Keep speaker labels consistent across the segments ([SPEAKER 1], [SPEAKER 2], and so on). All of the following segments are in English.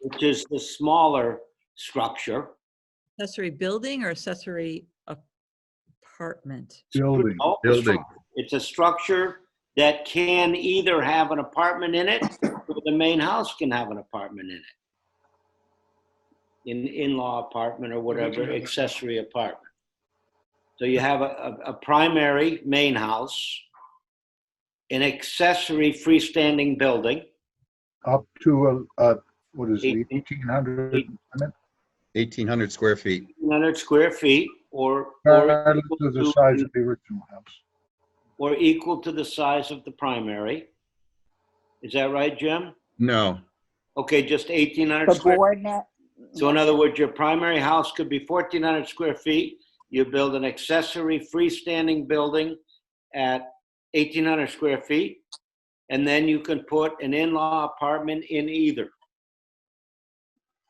[SPEAKER 1] which is the smaller structure.
[SPEAKER 2] Accessory building or accessory apartment?
[SPEAKER 3] Building,
[SPEAKER 1] Oh, it's
[SPEAKER 3] building.
[SPEAKER 1] structure. It's a structure that can either have an apartment in it, or the main house can have an apartment in it. An in-law apartment or whatever, accessory apartment. So you have a, a, a primary main house, an accessory freestanding building,
[SPEAKER 3] up to, uh, uh, what is it,
[SPEAKER 1] Eight-
[SPEAKER 3] eighteen hundred?
[SPEAKER 4] 1,800 square feet.
[SPEAKER 1] 100 square feet, or, or
[SPEAKER 3] Regardless of the
[SPEAKER 1] equal
[SPEAKER 3] size
[SPEAKER 1] to-
[SPEAKER 3] of the original house.
[SPEAKER 1] or equal to the size of the primary. Is that right, Jim?
[SPEAKER 4] No,
[SPEAKER 1] Okay, just 1,800
[SPEAKER 5] The
[SPEAKER 1] square
[SPEAKER 5] board net.
[SPEAKER 1] So in other words, your primary house could be fourteen hundred square feet. You build an accessory freestanding building at eighteen hundred square feet. And then you can put an in-law apartment in either.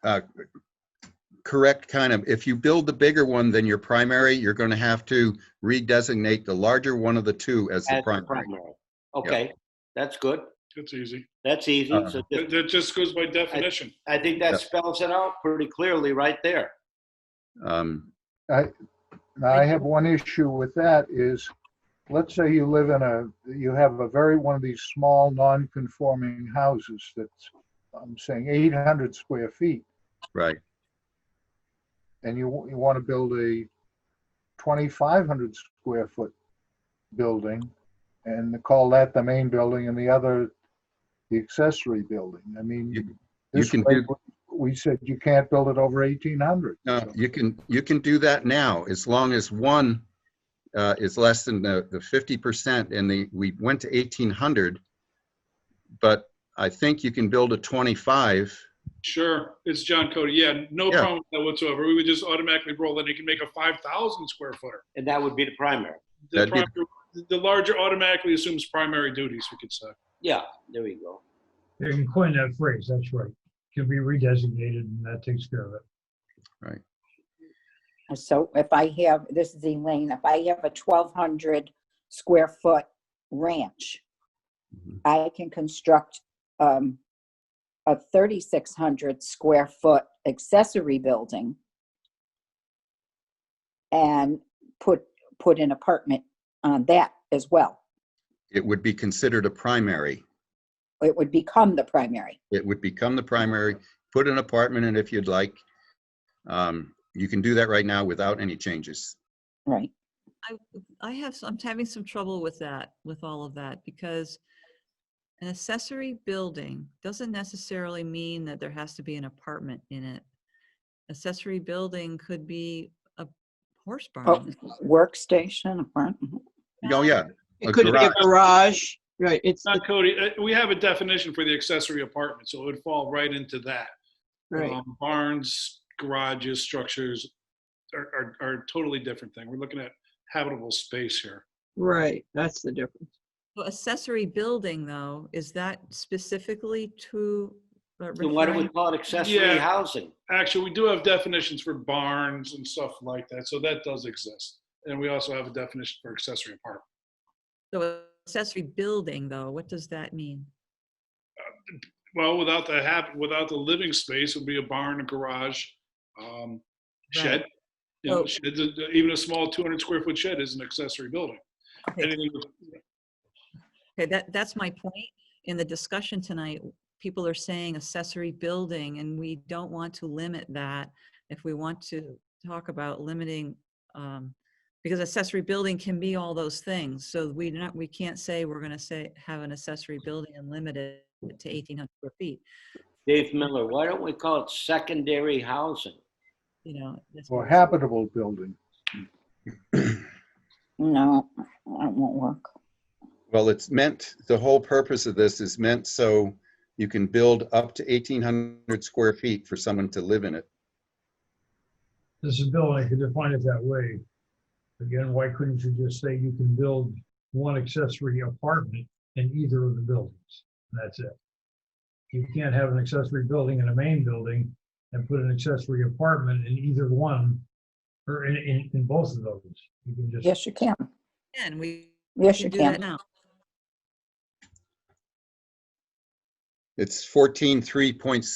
[SPEAKER 4] uh, correct kind of. If you build the bigger one than your primary, you're going to have to redesignate the larger one of the two as the
[SPEAKER 1] as the
[SPEAKER 4] primary.
[SPEAKER 1] Okay, that's good.
[SPEAKER 6] That's easy.
[SPEAKER 1] That's easy.
[SPEAKER 4] Uh-huh.
[SPEAKER 1] So
[SPEAKER 6] That,
[SPEAKER 1] just-
[SPEAKER 6] that just goes by definition.
[SPEAKER 1] I think that spells it out pretty clearly right there.
[SPEAKER 4] Um,
[SPEAKER 3] Now, I have one issue with that is, let's say you live in a, you have a very, one of these small, non-conforming houses that's, I'm saying eight hundred square feet,
[SPEAKER 4] Right,
[SPEAKER 3] and you, you want to build a twenty-five hundred square foot building, and call that the main building and the other the accessory building. I
[SPEAKER 4] You-
[SPEAKER 3] mean,
[SPEAKER 4] you
[SPEAKER 3] this
[SPEAKER 4] can
[SPEAKER 3] way,
[SPEAKER 4] do-
[SPEAKER 3] we said you can't build it over eighteen hundred.
[SPEAKER 4] no, you can, you can do that now, as long as one uh, is less than the the 50%, and the, we went to 1,800. But I think you can build a 25,
[SPEAKER 6] Sure, it's John Cody. Yeah, no
[SPEAKER 4] Yeah.
[SPEAKER 6] problem with that whatsoever. We would just automatically roll that. It can make a 5,000 square footer.
[SPEAKER 1] And that would be the primary.
[SPEAKER 6] The,
[SPEAKER 4] That'd be-
[SPEAKER 6] primary, the larger automatically assumes primary duties, we could say.
[SPEAKER 1] Yeah, there we go.
[SPEAKER 7] They can coin that phrase, that's right. Can be redesignated and that takes care of it.
[SPEAKER 5] So if I have, this is Elaine, if I have a twelve hundred square foot ranch,
[SPEAKER 4] Mhm.
[SPEAKER 5] I can construct um, a thirty-six hundred square foot accessory building and put, put an apartment on that as well.
[SPEAKER 4] it would be considered a primary.
[SPEAKER 5] It would become the primary.
[SPEAKER 4] It would become the primary, put an apartment in if you'd like. Um, You can do that right now without any changes.
[SPEAKER 5] Right.
[SPEAKER 2] I have, some- I'm having some trouble with that, with all of that, because an accessory building doesn't necessarily mean that there has to be an apartment in it. Accessory building could be a horse
[SPEAKER 5] Oh,
[SPEAKER 2] barn.
[SPEAKER 5] Workstation, apartment.
[SPEAKER 4] Uh-huh. Oh, yeah, A
[SPEAKER 8] It could be a
[SPEAKER 4] garage.
[SPEAKER 8] garage, right, it's,
[SPEAKER 6] John Cody, uh, we have a definition for the accessory apartment, so it would fall right into that.
[SPEAKER 8] right,
[SPEAKER 6] Um, Barns, garages, structures are, are, are a totally different thing. We're looking at habitable space here.
[SPEAKER 8] right, that's the difference.
[SPEAKER 2] So Accessory building, though, is that specifically to? uh,
[SPEAKER 1] So why don't we
[SPEAKER 2] referring-
[SPEAKER 1] call it accessory
[SPEAKER 6] Yeah.
[SPEAKER 1] housing?
[SPEAKER 6] Actually, we do have definitions for barns and stuff like that, so that does exist. And we also have a definition for accessory apartment.
[SPEAKER 2] So accessory building, though, what does that mean?
[SPEAKER 6] Well, without the hab, without the living space, it would be a barn, a garage, um, shed. You know,
[SPEAKER 2] Oh.
[SPEAKER 6] sheds, uh, even a small 200 square foot shed is an accessory building.
[SPEAKER 2] Okay.
[SPEAKER 6] Anything with-
[SPEAKER 2] Okay, that, that's my point. In the discussion tonight, people are saying accessory building, and we don't want to limit that. If we want to talk about limiting, um, because accessory building can be all those things. So we not, we can't say we're gonna say, have an accessory building and limit it to eighteen hundred square feet,
[SPEAKER 1] Dave Miller, why don't we call it secondary housing?
[SPEAKER 2] you know. that's-
[SPEAKER 3] Or habitable building.
[SPEAKER 5] No, that won't work.
[SPEAKER 4] Well, it's meant, the whole purpose of this is meant so you can build up to 1,800 square feet for someone to live in it.
[SPEAKER 7] This is Bill, I could define it that way. Again, why couldn't you just say you can build one accessory apartment in either of the buildings? And That's it. You can't have an accessory building in a main building and put an accessory apartment in either one or in, in, in both of those. You can just,
[SPEAKER 5] Yes, you can.
[SPEAKER 2] And we
[SPEAKER 5] Yes, you
[SPEAKER 2] should do that
[SPEAKER 5] can.
[SPEAKER 2] now.
[SPEAKER 4] It's 14.3.6